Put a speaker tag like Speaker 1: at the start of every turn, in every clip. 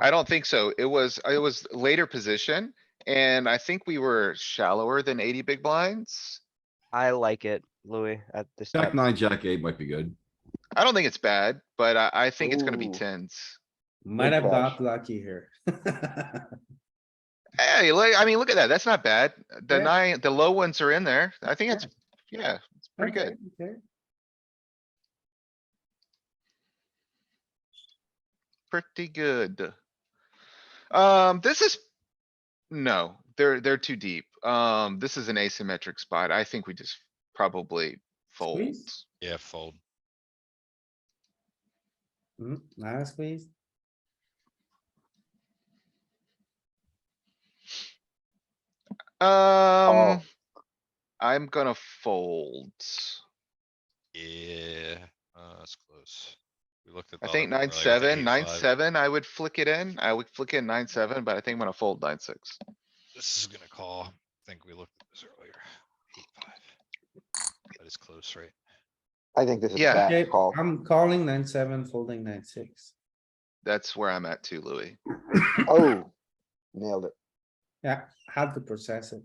Speaker 1: I don't think so. It was, it was later position and I think we were shallower than eighty big blinds.
Speaker 2: I like it, Louis, at this
Speaker 3: Jack
Speaker 2: time.
Speaker 3: nine, jack eight might be good.
Speaker 1: I don't think it's bad, but I, I think it's gonna be
Speaker 4: Ooh.
Speaker 1: tens.
Speaker 4: Might have
Speaker 3: Whiplash.
Speaker 4: got lucky here.
Speaker 1: Hey, like, I mean, look at that. That's not bad. The
Speaker 4: Yeah.
Speaker 1: nine, the low ones are in there. I think
Speaker 4: Yeah.
Speaker 1: it's, yeah, it's pretty good.
Speaker 4: Okay, okay.
Speaker 1: pretty good. Um, this is, no, they're, they're too deep. Um, this is an asymmetric spot. I think we just probably fold.
Speaker 4: Squeeze?
Speaker 5: Yeah, fold.
Speaker 4: Mm, Last squeeze.
Speaker 5: Oh.
Speaker 1: Um, I'm gonna fold.
Speaker 5: Yeah, uh, that's close. We looked at.
Speaker 1: I
Speaker 5: the
Speaker 1: think
Speaker 5: other one
Speaker 1: nine,
Speaker 5: earlier with the
Speaker 1: seven, nine,
Speaker 5: 8-5.
Speaker 1: seven, I would flick it in. I would flick in nine, seven, but I think I'm gonna fold nine, six.
Speaker 5: This is gonna call. I think we looked at this earlier. Eight, five. That is close, right?
Speaker 6: I think this is a
Speaker 1: Yeah.
Speaker 6: bad
Speaker 4: Okay,
Speaker 6: call.
Speaker 4: I'm calling nine, seven, folding nine, six.
Speaker 1: That's where I'm at too, Louis.
Speaker 6: Oh, nailed it.
Speaker 4: Yeah, had to process it.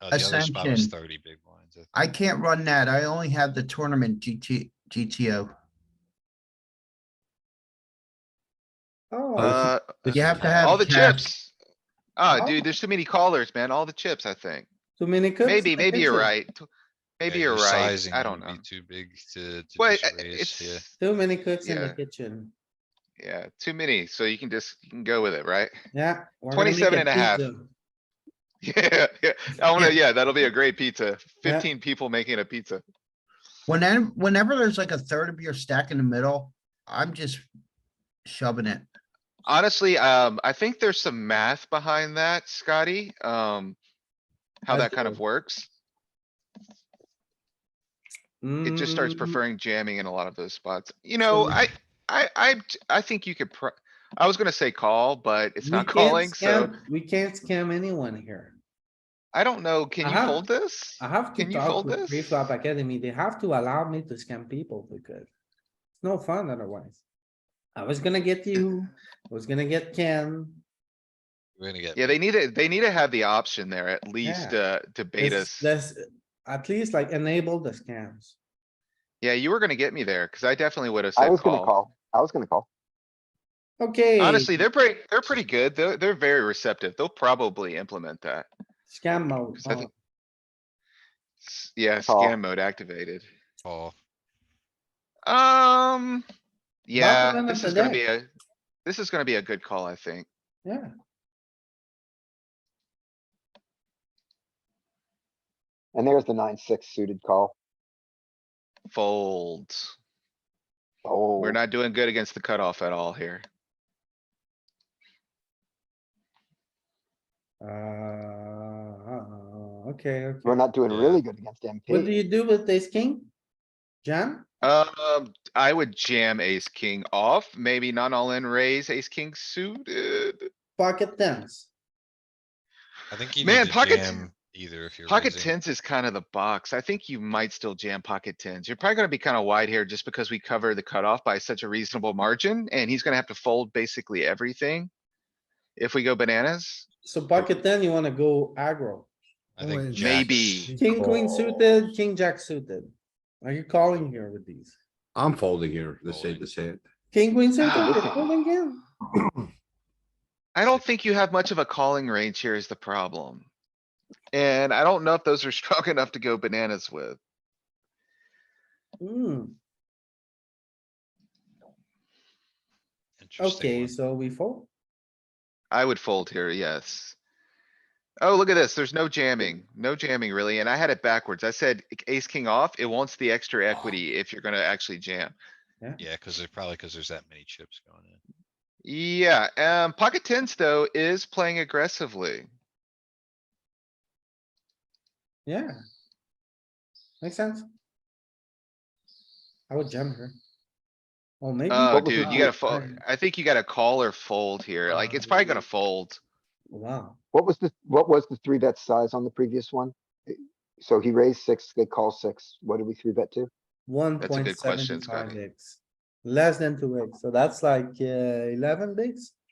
Speaker 5: Uh, the other spot was
Speaker 7: Ascension.
Speaker 5: thirty big blinds. I think.
Speaker 7: I can't run that. I only have the tournament GT, GTO.
Speaker 4: Oh,
Speaker 5: Oh,
Speaker 1: Uh,
Speaker 7: You have to have.
Speaker 1: all the
Speaker 7: it capped.
Speaker 1: chips. Ah,
Speaker 4: Oh.
Speaker 1: dude, there's too many callers, man. All the chips, I think.
Speaker 4: too many cooks.
Speaker 1: Maybe,
Speaker 4: I
Speaker 1: maybe
Speaker 4: think
Speaker 1: you're
Speaker 4: so.
Speaker 1: right. T- Maybe
Speaker 5: Yeah,
Speaker 1: you're
Speaker 5: your
Speaker 1: right.
Speaker 5: sizing
Speaker 1: I
Speaker 5: would
Speaker 1: don't
Speaker 5: be
Speaker 1: know.
Speaker 5: Too big to. to
Speaker 1: Wait,
Speaker 5: just
Speaker 1: I-
Speaker 5: raise, yeah.
Speaker 1: it's,
Speaker 4: Too many cooks in the
Speaker 1: Yeah.
Speaker 4: kitchen.
Speaker 1: yeah, too many. So you can just, you can go with it, right?
Speaker 4: Yeah. we're gonna
Speaker 1: 27
Speaker 4: make
Speaker 1: and a half.
Speaker 4: pizza.
Speaker 1: Yeah, yeah. I wanna, yeah, that'll be a great pizza.
Speaker 4: Yeah.
Speaker 1: Fifteen people making a pizza.
Speaker 7: Whenever, whenever there's like a third of your stack in the middle, I'm just shoving it.
Speaker 1: Honestly, um, I think there's some math behind that, Scotty, um. How
Speaker 4: I
Speaker 1: that kind of
Speaker 4: do.
Speaker 1: works. It just starts
Speaker 4: Mm,
Speaker 1: preferring jamming in a lot of those spots. You know,
Speaker 4: Mm-hmm.
Speaker 1: I, I, I, I think you could pro. I was gonna say call, but it's
Speaker 4: we
Speaker 1: not
Speaker 4: can't
Speaker 1: calling, so
Speaker 4: scam- We can't scam anyone here.
Speaker 1: I don't know. Can you
Speaker 4: Uh-huh.
Speaker 1: fold this?
Speaker 4: I have to
Speaker 1: Can you
Speaker 4: talk
Speaker 1: fold
Speaker 4: with
Speaker 1: this?
Speaker 4: Preflop Academy. They have to allow me to scam people because it's no fun otherwise. I was gonna get you, I was gonna get Ken.
Speaker 5: We're gonna get.
Speaker 1: Yeah, they need to, they need to have the option there at least, uh, to bait us.
Speaker 4: Let's- let's at least like enable the scams.
Speaker 1: Yeah, you were gonna get me there, cuz I definitely would have
Speaker 6: I
Speaker 1: said
Speaker 6: was gonna
Speaker 1: call.
Speaker 6: call. I was gonna call.
Speaker 4: Okay.
Speaker 1: Honestly, they're pretty, they're pretty good. They're, they're very receptive. They'll probably implement that.
Speaker 4: Scam mode.
Speaker 1: I think-
Speaker 4: oh,
Speaker 1: S- Yeah,
Speaker 6: Call.
Speaker 1: scan mode activated.
Speaker 5: Call.
Speaker 1: Um, yeah,
Speaker 4: end of
Speaker 1: this
Speaker 4: the
Speaker 1: is gonna
Speaker 4: day.
Speaker 1: be a, this is gonna be a good call, I think.
Speaker 4: Yeah.
Speaker 6: And there's the nine, six suited call.
Speaker 1: Fold.
Speaker 6: Oh,
Speaker 1: We're not doing good against the cutoff at all here.
Speaker 4: Oh, Uh, okay, okay.
Speaker 6: we're not doing
Speaker 5: Yeah.
Speaker 6: really good against
Speaker 4: What do
Speaker 6: MP.
Speaker 4: you do with ace king? Jam?
Speaker 1: Um, I would jam ace, king off, maybe not all in raise, ace, king suited.
Speaker 4: Pocket tens.
Speaker 5: I think you
Speaker 1: Man,
Speaker 5: need to
Speaker 1: pocket-
Speaker 5: jam either if you're.
Speaker 1: Pocket
Speaker 5: raising.
Speaker 1: tens is kind of the box. I think you might still jam pocket tens. You're probably gonna be kind of wide here just because we cover the cutoff by such a reasonable margin and he's gonna have to fold basically everything. If we go bananas,
Speaker 4: So pocket ten, you wanna go aggro.
Speaker 5: I think.
Speaker 7: Always.
Speaker 5: jacks.
Speaker 1: Maybe.
Speaker 4: King, queen suited, king, jack suited. Are you calling here with these?
Speaker 3: I'm folding here. This hand,
Speaker 5: Folding.
Speaker 3: this hand.
Speaker 4: King, queen
Speaker 1: Ah,
Speaker 4: suited, you're folding again?
Speaker 1: I don't think you have much of a calling range here is the problem. And I don't know if those are strong enough to go bananas with.
Speaker 4: Hmm,
Speaker 5: Interesting
Speaker 4: okay,
Speaker 5: one.
Speaker 4: so we fold.
Speaker 1: I would fold here, yes. Oh, look at this. There's no jamming, no jamming really. And I had it backwards. I said ace, king off. It wants the extra equity if you're gonna actually jam.
Speaker 5: Yeah, cuz there's probably, cuz there's that many chips going in.
Speaker 1: Yeah, um, pocket tens though is playing aggressively.
Speaker 4: Yeah. Makes sense? I would jam her. Oh, maybe.
Speaker 1: Oh,
Speaker 6: was
Speaker 1: dude,
Speaker 6: the Oh,
Speaker 1: you gotta
Speaker 6: fold
Speaker 1: fold. I think you gotta call or fold here. Like, it's
Speaker 4: Uh,
Speaker 1: probably gonna fold.
Speaker 4: Wow,
Speaker 6: What was the, what was the three bet size on the previous one? So he raised six, they call six. What did we three bet to?
Speaker 4: one
Speaker 1: That's a
Speaker 4: point
Speaker 1: good question,
Speaker 4: seven five
Speaker 1: Scotty.
Speaker 4: x. Less than two x, so that's like uh, eleven bigs.